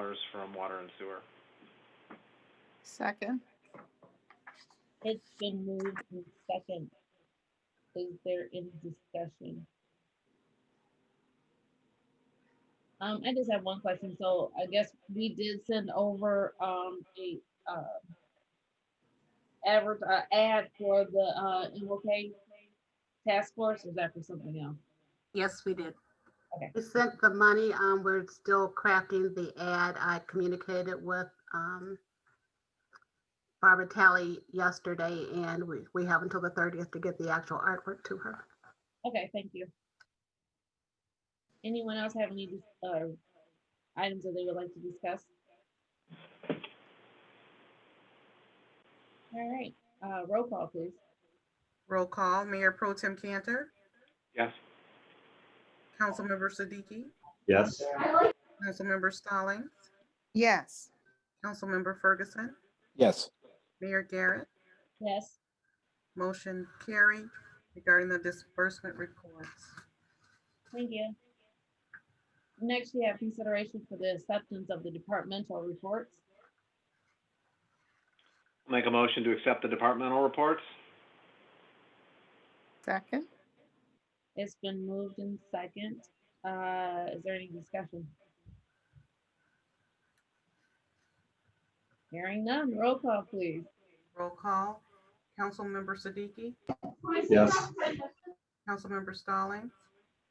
dollars from water and sewer. Second, It's been moved in second. Is there any discussion? Um, I just have one question. So I guess we did send over, um, a, uh, advert, uh, ad for the, uh, MOK task force, or is that for something else? Yes, we did. We sent the money, um, we're still crafting the ad. I communicated with, um, Barbara Talley yesterday and we, we have until the thirtieth to get the actual artwork to her. Okay, thank you. Anyone else have any, dis- uh, items that they would like to discuss? All right, uh, roll call, please. Roll call, Mayor Pro Tem Cantor, Yes? Councilmember Siddiqui, Yes. Councilmember Stallings, yes. Councilmember Ferguson, Yes. Mayor Garrett, Yes, motion carried regarding the disbursement reports. thank you. Next, we have consideration for the acceptance of the departmental reports. Make a motion to accept the departmental reports? Second, It's been moved in second. Uh, is there any discussion? Hearing none, roll call, please. Roll call, Councilmember Siddiqui, Yes. Councilmember Stallings,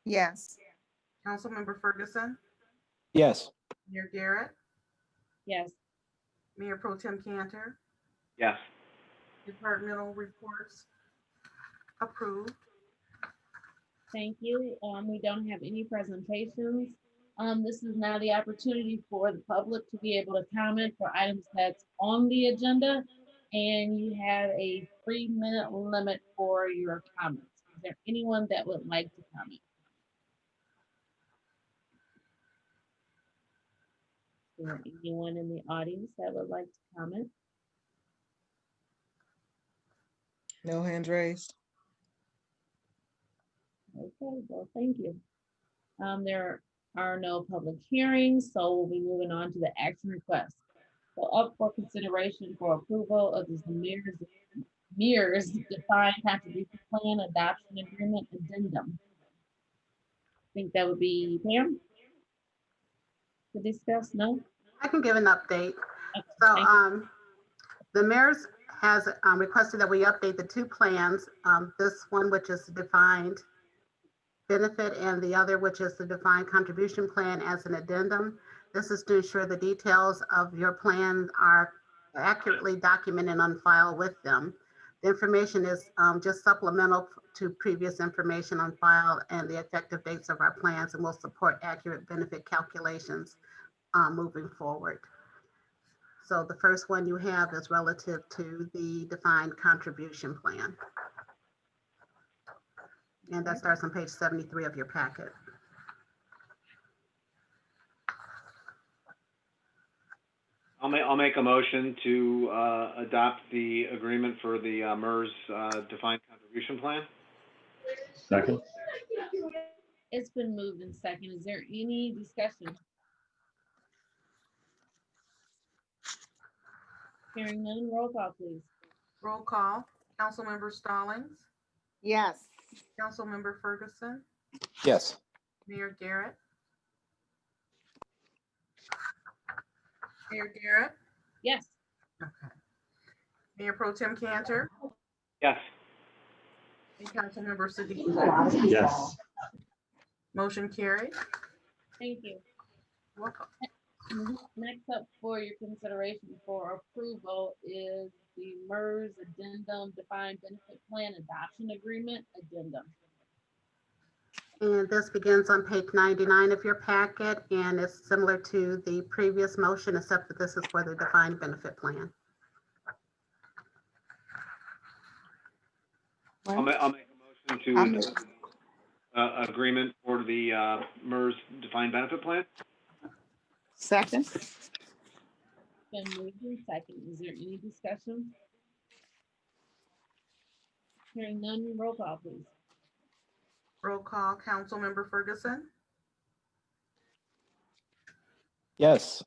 yes. Councilmember Ferguson, Yes. Mayor Garrett, Yes, Mayor Pro Tem Cantor, Yes. departmental reports approved. Thank you. Um, we don't have any presentations. Um, this is now the opportunity for the public to be able to comment for items that's on the agenda. And you have a three minute limit for your comments. Is there anyone that would like to comment? Is there anyone in the audience that would like to comment? No hands raised. Okay, well, thank you. Um, there are no public hearings, so we'll be moving on to the action request. So up for consideration for approval of this mirrors, mirrors defined contribution plan adoption agreement addendum. I Think that would be Pam? To discuss, no? I can give an update. Okay, So, thank you. um, the mayor's has um, requested that we update the two plans, um, this one which is the defined benefit and the other which is the defined contribution plan as an addendum. This is to ensure the details of your plan are accurately documented on file with them. The information is, um, just supplemental to previous information on file and the effective dates of our plans and will support accurate benefit calculations, uh, moving forward. So the first one you have is relative to the defined contribution plan. And that starts on page 73 of your packet. I'll ma, I'll make a motion to, uh, adopt the agreement for the, uh, MERS, uh, defined contribution plan. Second. It's been moved in second. Is there any discussion? Hearing none, roll call please. Roll call, Councilmember Stallings, Yes. Councilmember Ferguson, Yes. Mayor Garrett. Mayor Garrett. Yes, Okay. Mayor Pro Tim Cantor Yes. and Councilmember Siddiqui. Yes. Motion carried. thank you. Welcome. Next up for your consideration for approval is the MERS addendum defined benefit plan adoption agreement addendum. And this begins on page 99 of your packet and it's similar to the previous motion, except that this is for the defined benefit plan. I'll ma, I'll make a I'm- motion to, adopt, uh, agreement for the, uh, MERS defined benefit plan? Second, Been moved in second. Is there any discussion? Hearing none, roll call please. Roll call, Councilmember Ferguson, Yes.